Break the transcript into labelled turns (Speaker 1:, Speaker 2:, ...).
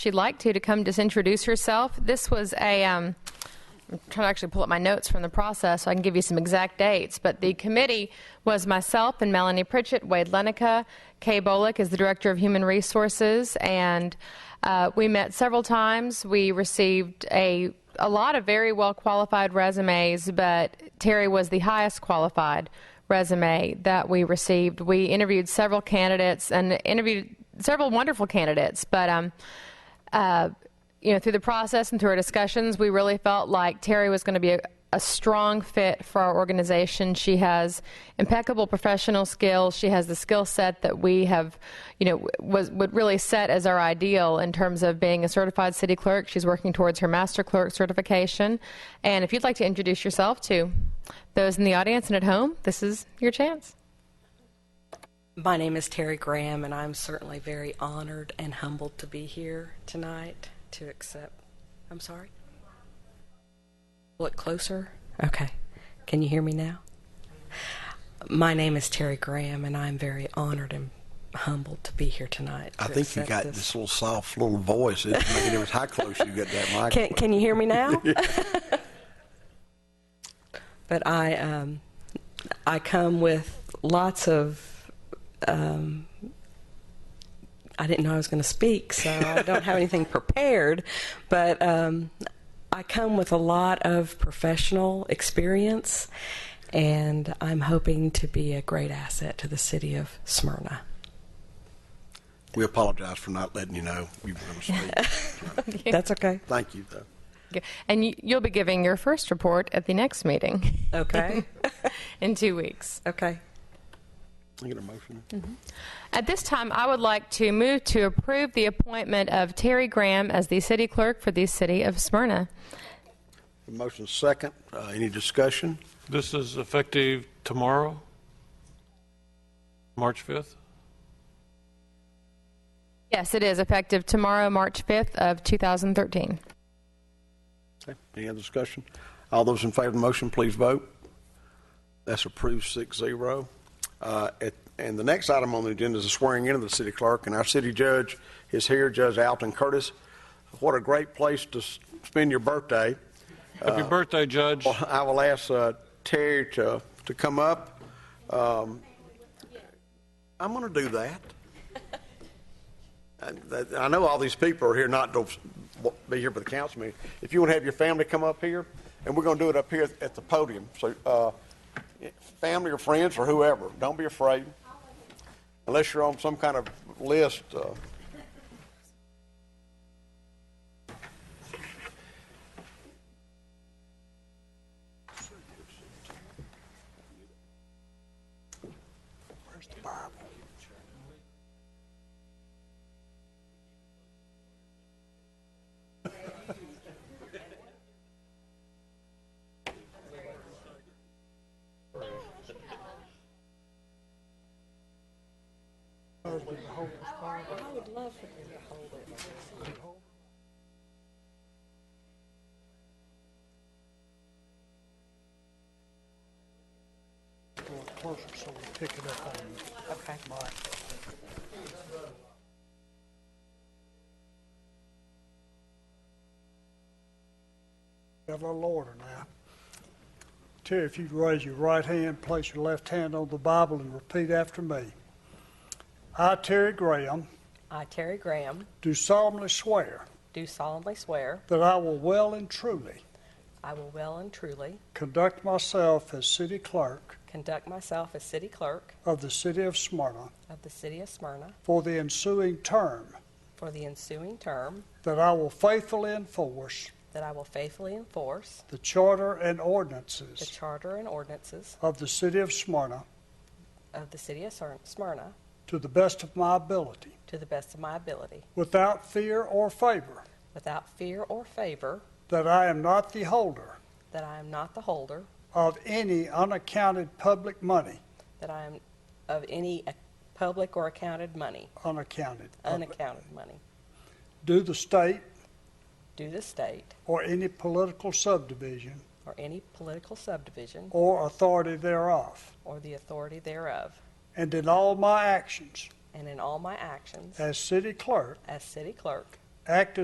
Speaker 1: she'd like to, to come just introduce herself. This was a, um, I'm trying to actually pull up my notes from the process so I can give you some exact dates, but the committee was myself and Melanie Pritchett, Wade Lenica, Kay Bolick is the Director of Human Resources, and uh, we met several times. We received a a lot of very well qualified resumes, but Terry was the highest qualified resume that we received. We interviewed several candidates and interviewed several wonderful candidates, but um, uh, you know, through the process and through our discussions, we really felt like Terry was going to be a, a strong fit for our organization. She has impeccable professional skills. She has the skill set that we have, you know, was would really set as our ideal in terms of being a certified city clerk. She's working towards her master clerk certification. And if you'd like to introduce yourself to those in the audience and at home, this is your chance.
Speaker 2: My name is Terry Graham, and I'm certainly very honored and humbled to be here tonight to accept. I'm sorry? Look closer. Okay. Can you hear me now? My name is Terry Graham, and I'm very honored and humbled to be here tonight.
Speaker 3: I
Speaker 2: to
Speaker 3: think you
Speaker 2: accept
Speaker 3: got this little soft little voice. It doesn't make a difference how close you get that mic.
Speaker 2: Can, can you hear me now? but I, um, I come with lots of. Um, I didn't know I was going to speak, so I don't have anything prepared. But um, I come with a lot of professional experience, and I'm hoping to be a great asset to the city of Smyrna.
Speaker 3: We apologize for not letting you know you were going to speak.
Speaker 2: That's okay.
Speaker 3: Thank you, though.
Speaker 1: And you, you'll be giving your first report at the next meeting
Speaker 2: Okay.
Speaker 1: in two weeks.
Speaker 2: okay.
Speaker 3: Can I get a motion?
Speaker 1: At this time, I would like to move to approve the appointment of Terry Graham as the city clerk for the city of Smyrna.
Speaker 3: A motion second. Uh, any discussion?
Speaker 4: This is effective tomorrow, March 5th?
Speaker 1: Yes, it is effective tomorrow, March 5th of 2013.
Speaker 3: Okay. Any other discussion? All those in favor of the motion, please vote. That's approved six zero. Uh, at- and the next item on the agenda is the swearing in of the city clerk, and our city judge is here, Judge Alton Curtis. What a great place to s- spend your birthday.
Speaker 4: Happy birthday, Judge.
Speaker 3: Well, I will ask uh, Terry to, to come up. Um, I'm going to do that. And that- I know all these people are here not to be here for the council meeting. If you want to have your family come up here, and we're going to do it up here at the podium. So, uh, family or friends or whoever, don't be afraid. Unless you're on some kind of list. uh, Where's the Bible?
Speaker 5: going closer, so we pick it up on the mic. We Have a little order now. Terry, if you'd raise your right hand, place your left hand on the Bible and repeat after me. I, Terry Graham,
Speaker 2: I, Terry Graham,
Speaker 5: do solemnly swear
Speaker 2: do solemnly swear
Speaker 5: that I will well and truly
Speaker 2: I will well and truly
Speaker 5: conduct myself as city clerk
Speaker 2: conduct myself as city clerk
Speaker 5: of the city of Smyrna
Speaker 2: of the city of Smyrna
Speaker 5: for the ensuing term,
Speaker 2: for the ensuing term,
Speaker 5: that I will faithfully enforce
Speaker 2: that I will faithfully enforce
Speaker 5: The charter and
Speaker 2: the
Speaker 5: ordinances
Speaker 2: charter and ordinances
Speaker 5: of the city of Smyrna
Speaker 2: of the city of Smyr- Smyrna
Speaker 5: to the best of my ability,
Speaker 2: to the best of my ability,
Speaker 5: without fear or favor,
Speaker 2: without fear or favor,
Speaker 5: that I am not the holder
Speaker 2: that I am not the holder,
Speaker 5: of any unaccounted public money,
Speaker 2: that I am of any ac- public or accounted money,
Speaker 5: unaccounted, public,
Speaker 2: unaccounted money,
Speaker 5: due the state
Speaker 2: due the state
Speaker 5: or any political subdivision
Speaker 2: or any political subdivision
Speaker 5: or authority thereof,
Speaker 2: or the authority thereof,
Speaker 5: and in all my actions
Speaker 2: and in all my actions
Speaker 5: as city clerk
Speaker 2: as city clerk
Speaker 5: act